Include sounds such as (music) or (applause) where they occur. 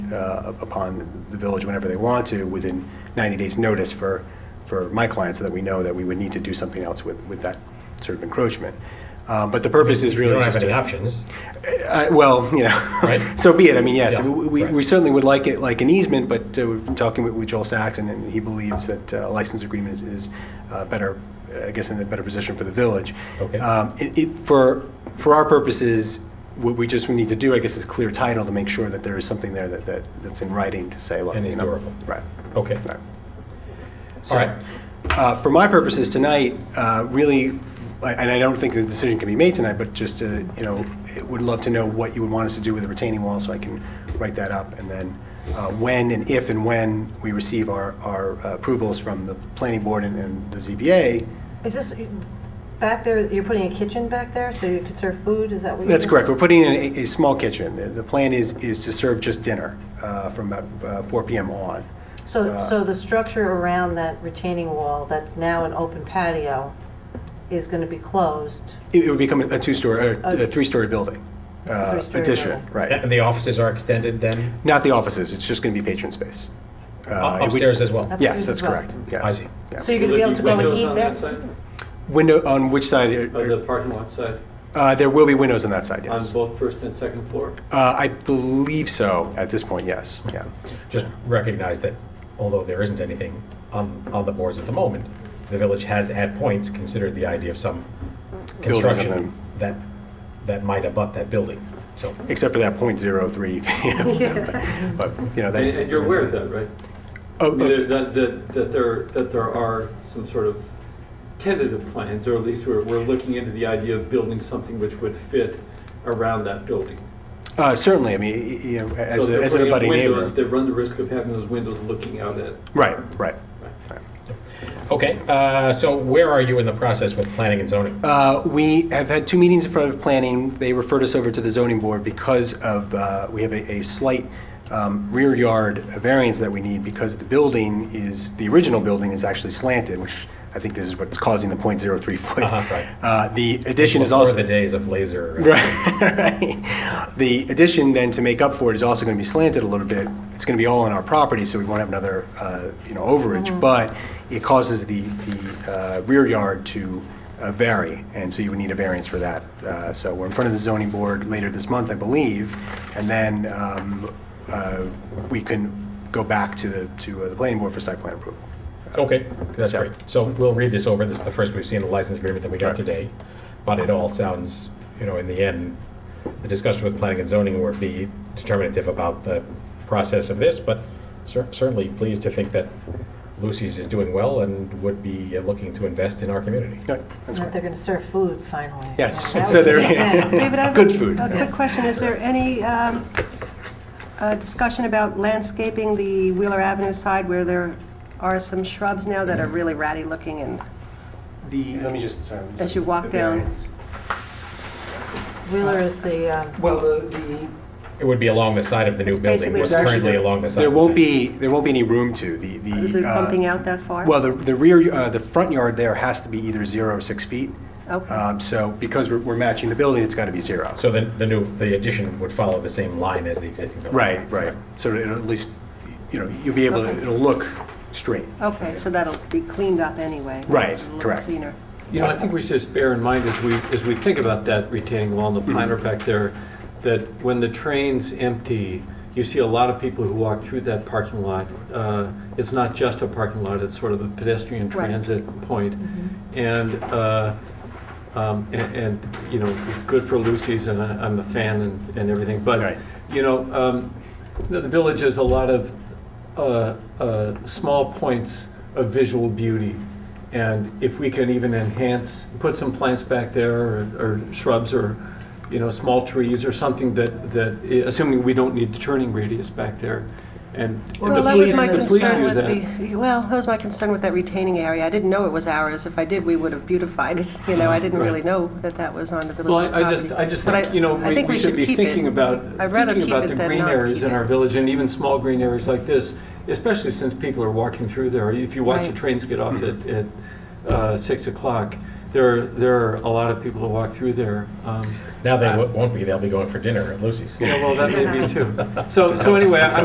uh, upon the village whenever they want to, within 90 days' notice for, for my client, so that we know that we would need to do something else with, with that sort of encroachment. Um, But the purpose is You really don't have just any to, options, uh, well, you know. Right. (laughs) So be it, I mean, yes, Yeah, we- we right. we certainly would like it, like an easement, but uh, we've been talking with- with Joel Saxon, and he believes that uh, a license agreement is- is uh, better, uh, I guess, in a better position for the village. Okay. Um, it- it- For, for our purposes, what we just need to do, I guess, is clear title to make sure that there is something there that, that that's in writing to say, look. And is you know, durable. Right. okay. Right. All right, Uh, For my purposes tonight, uh, really, I- and I don't think the decision can be made tonight, but just, uh, you know, it would love to know what you would want us to do with the retaining wall, so I can write that up, and then uh, when and if and when we receive our our uh, approvals from the planning board and- and the ZBA, Is this, back there, you're putting a kitchen back there so you could serve food, is that what you're? That's correct. We're putting in a, a small kitchen. The, the plan is, is to serve just dinner uh, from about uh, 4 PM on. Uh, So, so the structure around that retaining wall that's now an open patio is going to be closed? It it would become a two-story, or a A- three-story building. uh, three-story Addition, building. right. and the offices are extended then, Not the offices, it's just going to be patron space. Uh, Up- it would- upstairs as well? Up- Yes, that's correct, yes. I see. Yeah. So you're going to be able to go and eat Will there? there be windows Window, on which side? on that side, are- of the parking lot side, Uh, There will be windows on that side, on yes. both first and second floor? Uh, I believe so, at this point, yes, yeah. Just recognize that although there isn't anything on, on the boards at the moment, the village has at points considered the idea of some Building construction something. that, that might abut that building, so. Except for that (laughs) .03, you know, (laughs) but, but, you know, And that's. and you're aware of that, right? I Oh, mean, oh, there- That, that, that there, that there are some sort of tentative plans, or at least we're, we're looking into the idea of building something which would fit around that building. Uh, certainly, I mean, y- y- you know, as, So a- they're as an putting up abutting windows, neighbor. They run the risk of having those windows looking out at, Right, right. Okay, uh, so where are you in the process with planning and zoning? Uh, we have had two meetings in front of planning. They referred us over to the zoning board because of, uh, we have a, a slight, um, rear yard variance that we need because the building is, the original building is actually slanted, which I think this is what's causing the .03 foot. Uh-huh, right. Uh, the addition is Before also. the days of laser. (laughs) uh, Right. The addition then to make up for it is also going to be slanted a little bit. It's going to be all on our property, so we won't have another, uh, you know, Mm-hmm. overage. But it causes the, the uh, rear yard to uh, vary, and so you would need a variance for that. Uh, So we're in front of the zoning board later this month, I believe, and then um, uh, we can go back to the, to uh, the planning board for site plan approval. Okay, that's So- great. So we'll read this over. This is the first we've seen the license agreement that we got Right. today. But it all sounds, you know, in the end, the discussion with planning and zoning will be determinative about the process of this, but cer- certainly pleased to think that Lucy's is doing well and would be uh, looking to invest in our community. Good, that's That great. they're going to serve food finally? Yes, Yeah, that so would be- there, David, I have good food. a quick question. Is there any um, uh, discussion about landscaping the Wheeler Avenue side where there are some shrubs now that are really ratty looking and (laughs) The, let me just, sorry. As you walk the down. variance. Wheeler is the, um, Well, the, the It would be along the side of the new It's building, basically which is It's actually currently there- along the side. There of the won't thing. be, there won't be any room to, the, the. is it uh, bumping out that far? Well, the, the rear, uh, the front yard there has to be either zero or six feet. Okay. Um, So, because we're, we're matching the building, it's gotta be zero. So then the new, the addition would follow the same line as the existing building. Right, right. So it'll at least, you know, you'll be able, to it'll look straight. Okay, so that'll be cleaned up anyway. Right, It'll look correct. cleaner. You know, I think we should just bear in mind as we, as we think about that retaining wall and the planter back there, that when the train's empty, you see a lot of people who walk through that parking lot. Uh, It's not just a parking lot, it's sort of a pedestrian Right. transit point. And, uh, um, a- and, you know, good for Lucy's, and I- I'm a fan and, and everything, Right. but, you know, um, you know, the village has a lot of uh, uh, small points of visual beauty. And if we can even enhance, put some plants back there or or shrubs or, you know, small trees or something that, that, assuming we don't need the turning radius back there. And and Well, the Well, that was police, my the police concern use with that. the, well, that was my concern with that retaining area. I didn't know it was ours. If I did, we would have beautified it. (laughs) You know, I didn't Right. really know that that was on the Well, village's I I property. just, I just But think, you know, I we think we should be keep it. thinking about, I'd rather thinking keep about it the than green not areas keep in it. our village and even small green areas like this, especially since people are walking through there. If you watch the Right. trains get off at, at uh, six o'clock, there, are- there are a lot of people who walk through there. Um, Now they wo- won't be, they'll be going for dinner at Lucy's. (laughs) Yeah, well, that may be too. So, so anyway, I-